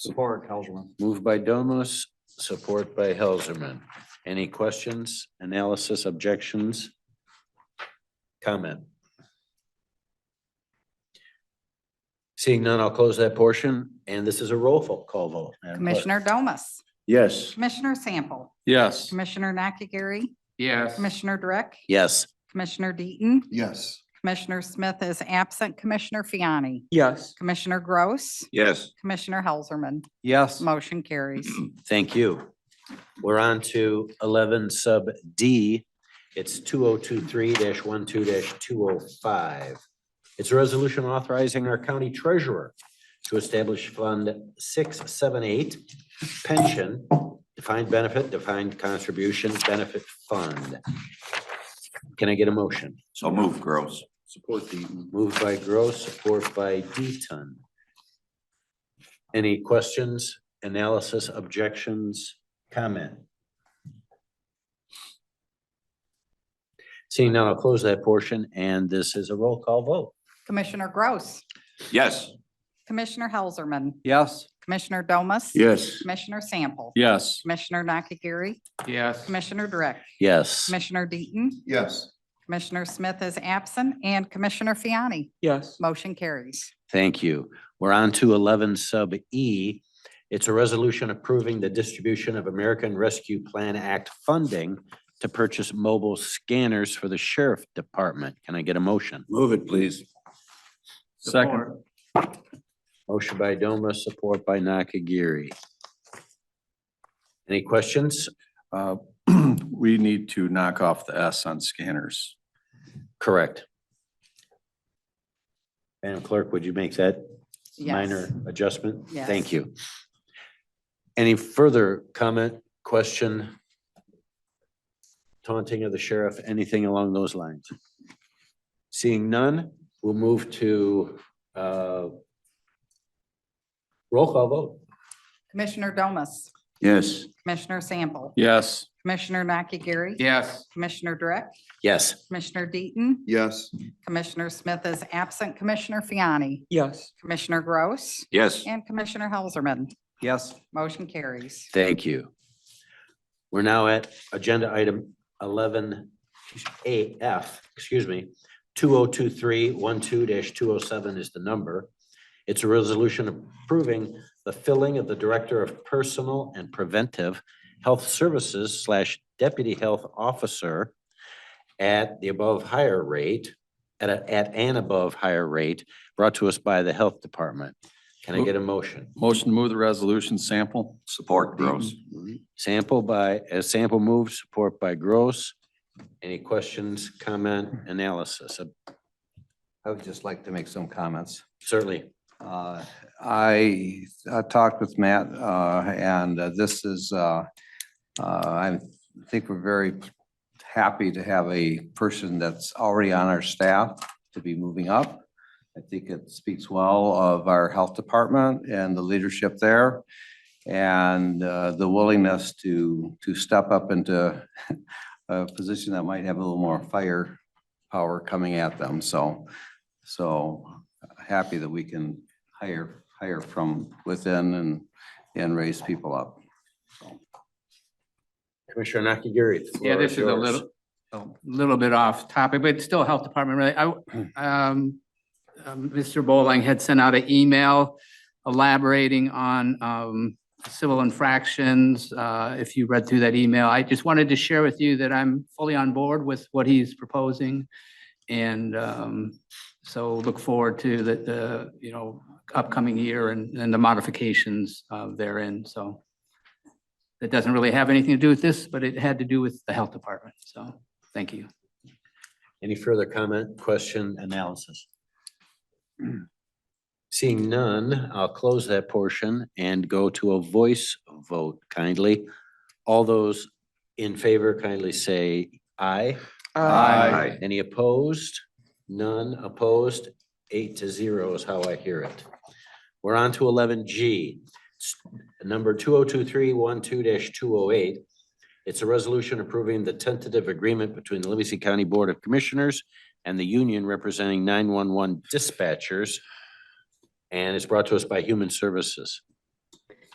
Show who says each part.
Speaker 1: Support, Helserman.
Speaker 2: Moved by Domas, support by Helserman. Any questions, analysis, objections? Comment? Seeing none, I'll close that portion, and this is a roll fo- call vote. Madam Clerk.
Speaker 3: Commissioner Domas,
Speaker 2: Yes.
Speaker 3: Commissioner Sample,
Speaker 4: Yes.
Speaker 3: Commissioner Nakagiri,
Speaker 4: Yes.
Speaker 3: Commissioner Dreck,
Speaker 2: Yes.
Speaker 3: Commissioner Deaton,
Speaker 1: Yes.
Speaker 3: Commissioner Smith is absent, Commissioner Fiani,
Speaker 4: Yes.
Speaker 3: Commissioner Gross,
Speaker 4: Yes.
Speaker 3: Commissioner Helserman.
Speaker 4: Yes.
Speaker 3: Motion carries.
Speaker 2: Thank you. We're on to eleven sub D. It's two oh two three 12 two oh five. It's a resolution authorizing our county treasurer to establish Fund six seven eight pension, defined benefit, defined contribution benefit fund. Can I get a motion?
Speaker 4: So move, Gross.
Speaker 1: Support Deaton.
Speaker 2: Moved by Gross, support by Deaton. Any questions, analysis, objections, comment? Seeing none, I'll close that portion, and this is a roll call vote.
Speaker 3: Commissioner Gross,
Speaker 4: Yes.
Speaker 3: Commissioner Helserman,
Speaker 4: Yes.
Speaker 3: Commissioner Domas.
Speaker 4: Yes.
Speaker 3: Commissioner Sample.
Speaker 4: Yes.
Speaker 3: Commissioner Nakagiri,
Speaker 4: Yes.
Speaker 3: Commissioner Dreck,
Speaker 2: Yes.
Speaker 3: Commissioner Deaton,
Speaker 1: Yes.
Speaker 3: Commissioner Smith is absent, and Commissioner Fiani.
Speaker 4: Yes.
Speaker 3: Motion carries.
Speaker 2: Thank you. We're on to eleven sub E. It's a resolution approving the distribution of American Rescue Plan Act funding to purchase mobile scanners for the sheriff department. Can I get a motion?
Speaker 4: Move it, please. Second.
Speaker 2: Motion by Doma, support by Nakagiri. Any questions?
Speaker 5: Uh, We need to knock off the S on scanners.
Speaker 2: Correct. Madam Clerk, would you make that
Speaker 3: Yes.
Speaker 2: minor adjustment?
Speaker 3: Yes.
Speaker 2: Thank you. Any further comment, question? Taunting of the sheriff, anything along those lines? Seeing none, we'll move to uh, roll call vote.
Speaker 3: Commissioner Domas,
Speaker 5: Yes.
Speaker 3: Commissioner Sample,
Speaker 5: Yes.
Speaker 3: Commissioner Nakagiri.
Speaker 4: Yes.
Speaker 3: Commissioner Dreck,
Speaker 2: Yes.
Speaker 3: Commissioner Deaton,
Speaker 1: Yes.
Speaker 3: Commissioner Smith is absent, Commissioner Fiani,
Speaker 4: Yes.
Speaker 3: Commissioner Gross,
Speaker 4: Yes.
Speaker 3: and Commissioner Helserman.
Speaker 4: Yes.
Speaker 3: Motion carries.
Speaker 2: Thank you. We're now at agenda item eleven AF, excuse me, two oh two three one two two oh seven is the number. It's a resolution approving the filling of the Director of Personal and Preventive Health Services slash Deputy Health Officer at the above higher rate, at a, at an above higher rate, brought to us by the Health Department. Can I get a motion?
Speaker 5: Motion to move the resolution sample?
Speaker 4: Support, Gross.
Speaker 2: Sample by, a sample move, support by Gross. Any questions, comment, analysis? Uh,
Speaker 6: I would just like to make some comments.
Speaker 2: Certainly,
Speaker 6: Uh, I uh, talked with Matt, uh, and uh, this is, uh, uh, I think we're very happy to have a person that's already on our staff to be moving up. I think it speaks well of our health department and the leadership there and uh, the willingness to, to step up into a position that might have a little more fire power coming at them. So, so happy that we can hire, hire from within and, and raise people up.
Speaker 2: Commissioner Nakagiri. the floor
Speaker 7: Yeah, this is a
Speaker 2: yours.
Speaker 7: little, a little bit off topic, but it's still Health Department really. I, um, um, Mr. Bowling had sent out an email elaborating on, um, civil infractions. Uh, if you read through that email, I just wanted to share with you that I'm fully on board with what he's proposing. And, um, so look forward to the, the, you know, upcoming year and, and the modifications, uh, therein, so. That doesn't really have anything to do with this, but it had to do with the health department. So, thank you.
Speaker 2: Any further comment, question, analysis? Seeing none, I'll close that portion and go to a voice vote kindly. All those in favor kindly say aye.
Speaker 5: Aye.
Speaker 2: Any opposed? None opposed? Eight to zero is how I hear it. We're on to eleven G. Number two oh two three one two two oh eight. It's a resolution approving the tentative agreement between the Livingston County Board of Commissioners and the union representing nine one one dispatchers. And it's brought to us by Human Services.